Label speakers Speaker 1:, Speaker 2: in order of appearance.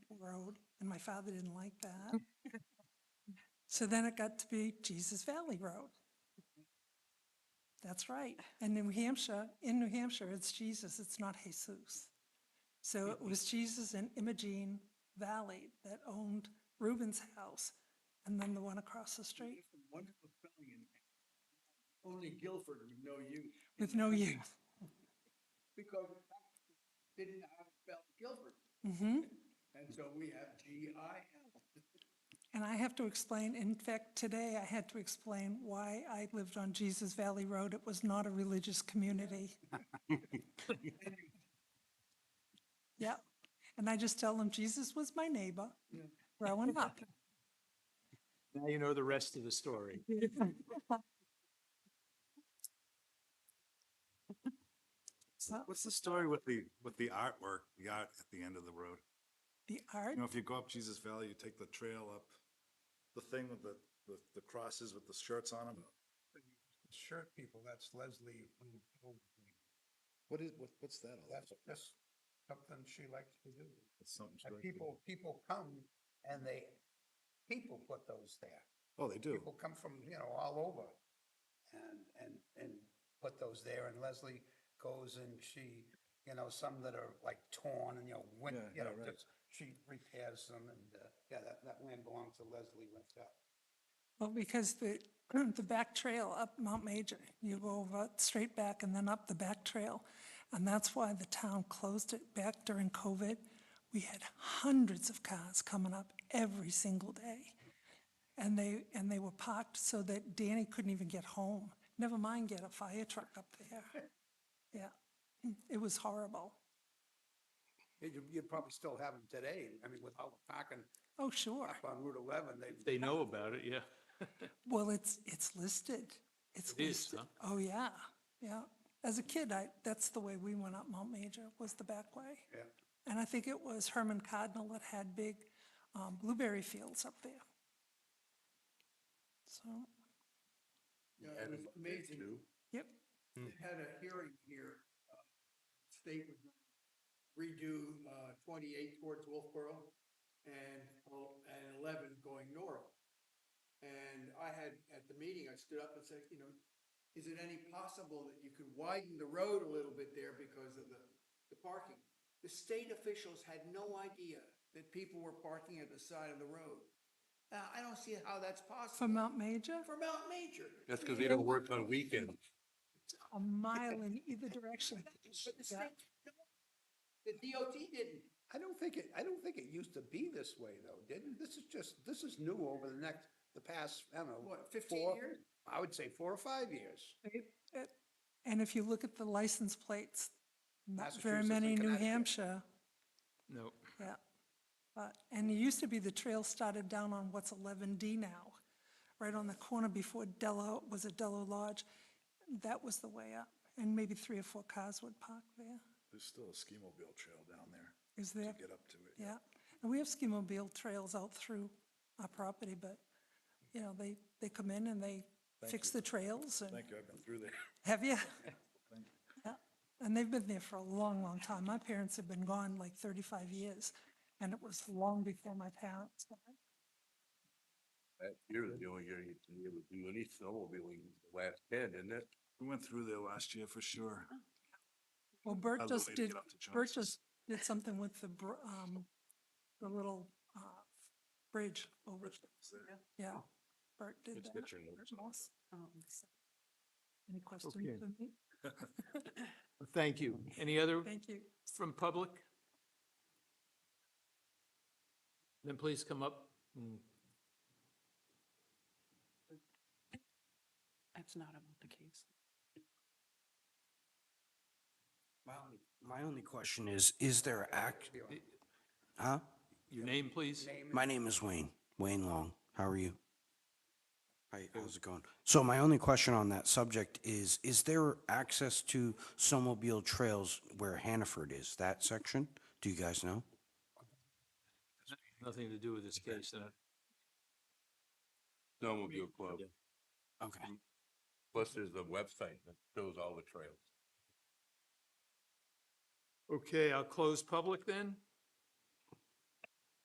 Speaker 1: Road, and my father didn't like that. So then it got to be Jesus Valley Road. That's right. And New Hampshire, in New Hampshire, it's Jesus, it's not Jesus. So it was Jesus and Imogene Valley that owned Reuben's house, and then the one across the street
Speaker 2: Just a Wonderful spelling and only Guilford would know you.
Speaker 1: with no youth.
Speaker 2: Because I didn't know how to spell Guilford.
Speaker 1: Mhm.
Speaker 2: And so we have G I L.
Speaker 1: And I have to explain, in fact, today I had to explain why I lived on Jesus Valley Road. It was not a religious community. Yeah, and I just tell them Jesus was my neighbor
Speaker 2: Yeah.
Speaker 1: growing up.
Speaker 3: Now you know the rest of the story.
Speaker 1: So
Speaker 4: What's the story with the, with the artwork, the art at the end of the road?
Speaker 1: The art,
Speaker 4: You know, if you go up Jesus Valley, you take the trail up, the thing with the, the, the crosses with the shirts on them.
Speaker 5: Shirt people, that's Leslie. who- who-
Speaker 4: What is, what, what's that all about?
Speaker 5: That's just something she likes to do.
Speaker 4: It's something
Speaker 5: And
Speaker 4: strange.
Speaker 5: people, people come and they, people put those there.
Speaker 4: Oh, they do.
Speaker 5: People come from, you know, all over and, and, and put those there. And Leslie goes and she, you know, some that are like torn and, you know, went,
Speaker 4: Yeah,
Speaker 5: you know,
Speaker 4: yeah, right.
Speaker 5: just, she repairs them and, uh, yeah, that, that land belongs to Leslie Winthrop.
Speaker 1: well, because the, the back trail up Mount Major, you go over, straight back and then up the back trail. And that's why the town closed it back during COVID. We had hundreds of cars coming up every single day. And they, and they were parked so that Danny couldn't even get home, never mind get a fire truck up there. Yeah, it was horrible.
Speaker 5: You, you'd probably still have them today. I mean, with all the parking
Speaker 1: Oh, sure.
Speaker 5: up on Route 11, they,
Speaker 3: They know about it, yeah.
Speaker 1: Well, it's, it's listed. It's
Speaker 3: It is,
Speaker 1: listed.
Speaker 3: huh?
Speaker 1: Oh, yeah, yeah. As a kid, I, that's the way we went up Mount Major, was the back way.
Speaker 5: yeah.
Speaker 1: And I think it was Herman Cardinal that had big um, blueberry fields up there. So,
Speaker 2: Yeah, it was amazing.
Speaker 1: yep,
Speaker 2: They had a hearing here, uh, state was gonna redo, uh, twenty-eight towards Wolfboro and, el- and eleven going north. And I had, at the meeting, I stood up and said, you know, is it any possible that you could widen the road a little bit there because of the, the parking? The state officials had no idea that people were parking at the side of the road. Now, I don't see how that's
Speaker 1: for
Speaker 2: possible
Speaker 1: Mount Major,
Speaker 2: for Mount Major.
Speaker 6: That's because they don't work on weekends.
Speaker 1: a mile in either direction.
Speaker 2: But the
Speaker 1: Yeah.
Speaker 2: state, the DOT didn't.
Speaker 5: I don't think it, I don't think it used to be this way though, didn't? This is just, this is new over the next, the past, I don't know.
Speaker 2: What, 15
Speaker 5: four-
Speaker 2: years?
Speaker 5: I would say four or five years.
Speaker 1: It- it- And if you look at the license plates, not very
Speaker 5: Massachusetts and
Speaker 1: many New
Speaker 5: Connecticut.
Speaker 1: Hampshire.
Speaker 3: No.
Speaker 1: Yeah, but, and it used to be the trail started down on what's 11D now, right on the corner before Dello, was it Dello Lodge? That was the way up, and maybe three or four cars would park there.
Speaker 4: There's still a ski mobile trail down there
Speaker 1: Is there?
Speaker 4: to get up to it.
Speaker 1: Yeah, and we have ski mobile trails out through our property, but, you know, they, they come in and they fix the trails and,
Speaker 4: Thank you, I've been through there.
Speaker 1: have you? Yeah, And they've been there for a long, long time. My parents have been gone like 35 years, and it was long before my parents. died.
Speaker 6: That year, the only year you can really do any snowmobiling, was the last ten, isn't it?
Speaker 4: We went through there last year for sure.
Speaker 1: Well, Bert
Speaker 4: Another
Speaker 1: just
Speaker 4: way to
Speaker 1: did,
Speaker 4: get up to
Speaker 1: Bert
Speaker 4: Johnson's.
Speaker 1: just did something with the, br- um, the little, uh, bridge over,
Speaker 4: It's there.
Speaker 1: yeah. Bert did
Speaker 6: It's
Speaker 1: that.
Speaker 6: got your notes
Speaker 1: Bert
Speaker 6: on it.
Speaker 1: Moss. Any questions
Speaker 3: Okay.
Speaker 1: for me?
Speaker 3: Thank you. Any other
Speaker 1: Thank you.
Speaker 3: from public? Then please come up. and
Speaker 7: That's not about the case.
Speaker 8: My only, my only question is, is there act, huh?
Speaker 3: Your name, please.
Speaker 8: My name is Wayne, Wayne Long. How are you? Hi, how's it going? So my only question on that subject is, is there access to snowmobile trails where Hannaford is, that section? Do you guys know?
Speaker 3: Nothing to do with this case. uh,
Speaker 6: Snowmobile club.
Speaker 8: Okay.
Speaker 6: Plus, there's a website that shows all the trails.
Speaker 3: Okay, I'll close public then.